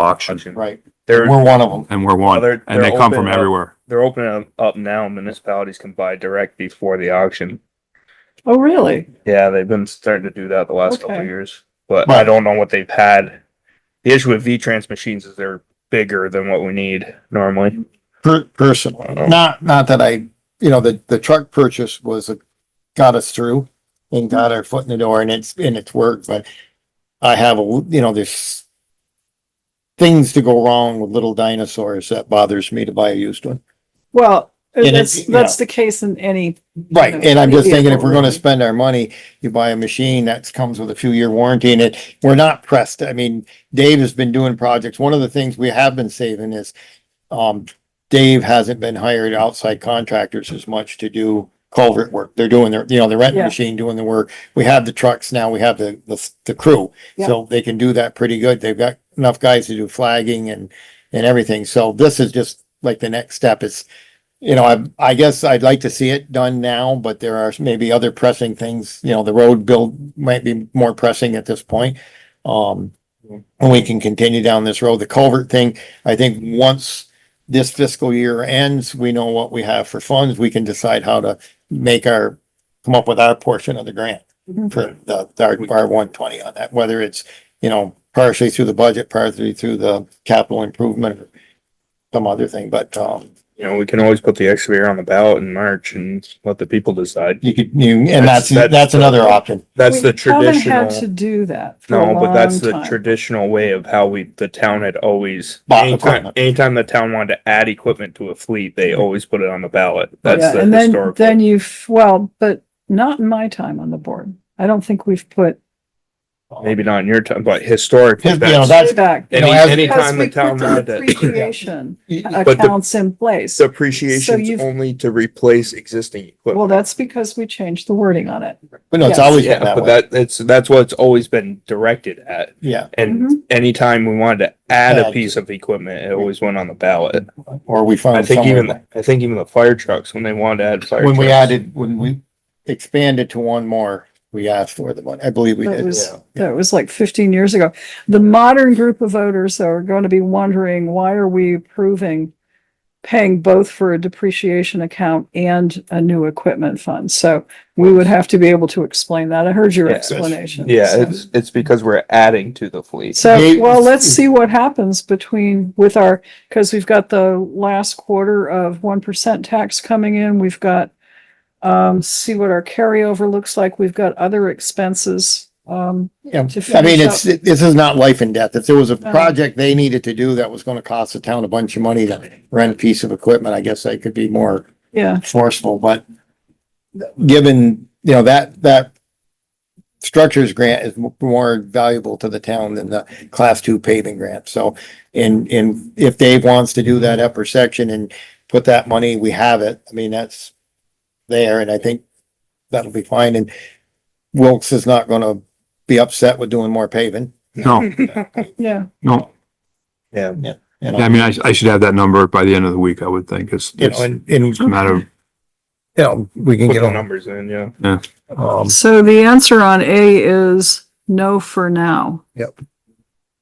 auction Right, They're, we're one of them. and we're one, They're- and they're they come from opening up- everywhere. they're opening them up now. Municipalities can buy direct before the auction. Oh, really? Yeah, they've been starting to do that the last couple of Okay. years, but I don't know what they've had. The issue with V-Trans machines is they're bigger than what we need normally. Per- personally, not, not that I, you know, the, the truck purchase was, a- got us through and got our foot in the door and it's, and it's worked, but I have, a you know, there's things to go wrong with little dinosaurs that bothers me to buy a used one. Well, And it- that's, that's the case in any, Right, and I'm just thinking if we're gonna Vehicle. spend our money, you buy a machine that comes with a few year warranty and it, we're not pressed. I mean, Dave has been doing projects. One of the things we have been saving is um, Dave hasn't been hired outside contractors as much to do culvert work. They're doing their, you know, they're renting Yeah. the machine, doing the work. We have the trucks now, we have the, the, the crew. Yeah. So they can do that pretty good. They've got enough guys to do flagging and, and everything. So this is just like the next step. It's you know, I, I guess I'd like to see it done now, but there are maybe other pressing things, you know, the road build might be more pressing at this point. Um, and we can continue down this road. The culvert thing, I think once this fiscal year ends, we know what we have for funds. We can decide how to make our, come up with our portion of the grant Mhm. for the, our, our one twenty on that, whether it's, you know, partially through the budget, partially through the capital improvement or some other thing, but, um, You know, we can always put the excavator on the ballot in March and let the people decide. You could, you, and That's- that's, that's- that's another option. That's We the haven't had To traditional, do that for a no, but that's long the time. traditional way of how we, the town had always. Bought Anytime, equipment. anytime the town wanted to add equipment to a fleet, they always put it on the ballot. That's Yeah, the and then, historical. then you've, well, but not in my time on the board. I don't think we've put Maybe not in your time, but historically. You know, that's- That's- back. you Any, know, as- Because anytime we the town put the had that. appreciation the- accounts in place. So Depreciation's you've- only to replace existing Well, equipment. that's because we changed the wording on it. But no, it's Yes. always been Yeah, that but way. that, it's, that's what it's always been directed at. Yeah, And anytime we wanted to add a Mm-hmm. Add. piece of equipment, it always went on the ballot. or we I found think somewhere. even, I think even the fire trucks, when they wanted to add fire. When we trucks, added, when we expanded to one more, we asked for the one, I believe we That did. was, yeah. that was like fifteen years ago. The modern group of voters are going to be wondering, why are we approving paying both for a depreciation account and a new equipment fund? So we would have to be able to explain that. I heard your Yeah. explanation. Yeah, so. it's, it's because we're adding to the fleet. So, Yeah. well, let's see what happens between with our, because we've got the last quarter of one percent tax coming in. We've got um, see what our carryover looks like. We've got other expenses. Um, Yeah, to I mean, finish it's, this is not life and death. If there was a No. project they needed to do that was gonna cost the town a bunch of money to rent a piece of equipment, I guess I could be more yeah, forceful, but given, you know, that, that structures grant is m- more valuable to the town than the class two paving grant. So in, in, if Dave wants to do that upper section and put that money, we have it. I mean, that's there and I think that'll be fine. And Wilkes is not gonna be upset with doing more paving. No, yeah. no, Yeah. you know? I mean, I, I should have that number by the end of the week, I would think. It's, You it's know, and, and, you a matter of, know, we can Put get the on, numbers in, yeah. um, So the answer on A is no for now. Yep.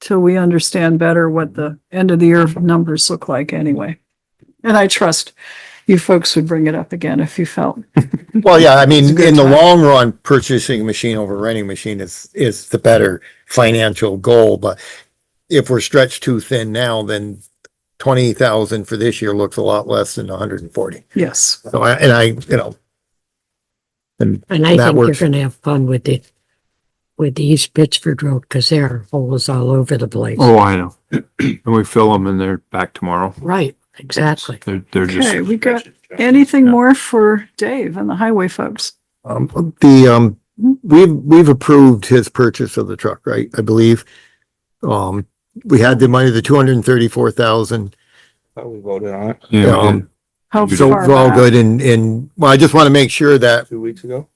Till we understand better what the end of the year numbers look like anyway. And I trust you folks would bring it up again if you felt. Well, yeah, I mean, good in the time. long run, purchasing a machine over renting a machine is, is the better financial goal, but if we're stretched too thin now, then twenty thousand for this year looks a lot less than hundred and forty. Yes. So I, and I, you know, And I That think you're works. gonna have fun with the, with the East Pittsford Road, because there are holes all over the place. oh, I know. And we fill them and they're back tomorrow. Right, exactly. They're, they're just, Okay, we got anything more for Dave and the highway folks? um, the, um, we've, we've approved his purchase of the truck, right? I believe. Um, we had the money, the two hundred and thirty-four thousand Thought we voted on it yeah, Um, we did. How You So far we're all back? good and, and, well, I just want to make sure that two weeks ago.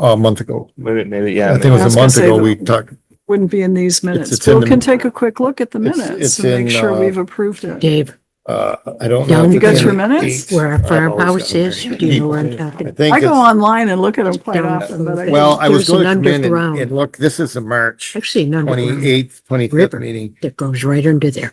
a month ago, Maybe, maybe, yeah. I think it I was was a gonna month say ago, that- we talked, Wouldn't be in these minutes. it's in Bill the- can take a quick look at the It's- minutes it's and make in, sure uh, we've approved it. Dave, uh, I don't Yeah, know. the you guys for minutes? dates. where our I've always farmhouse got is, very do you know where I'm people. I talking? think I go it's- online and look at them quite Down often, but I. from well, I was there's going an to come in and- underground. and look, this is the March Actually, not. twenty-eighth, twenty-fifth River. meeting. That goes right under there.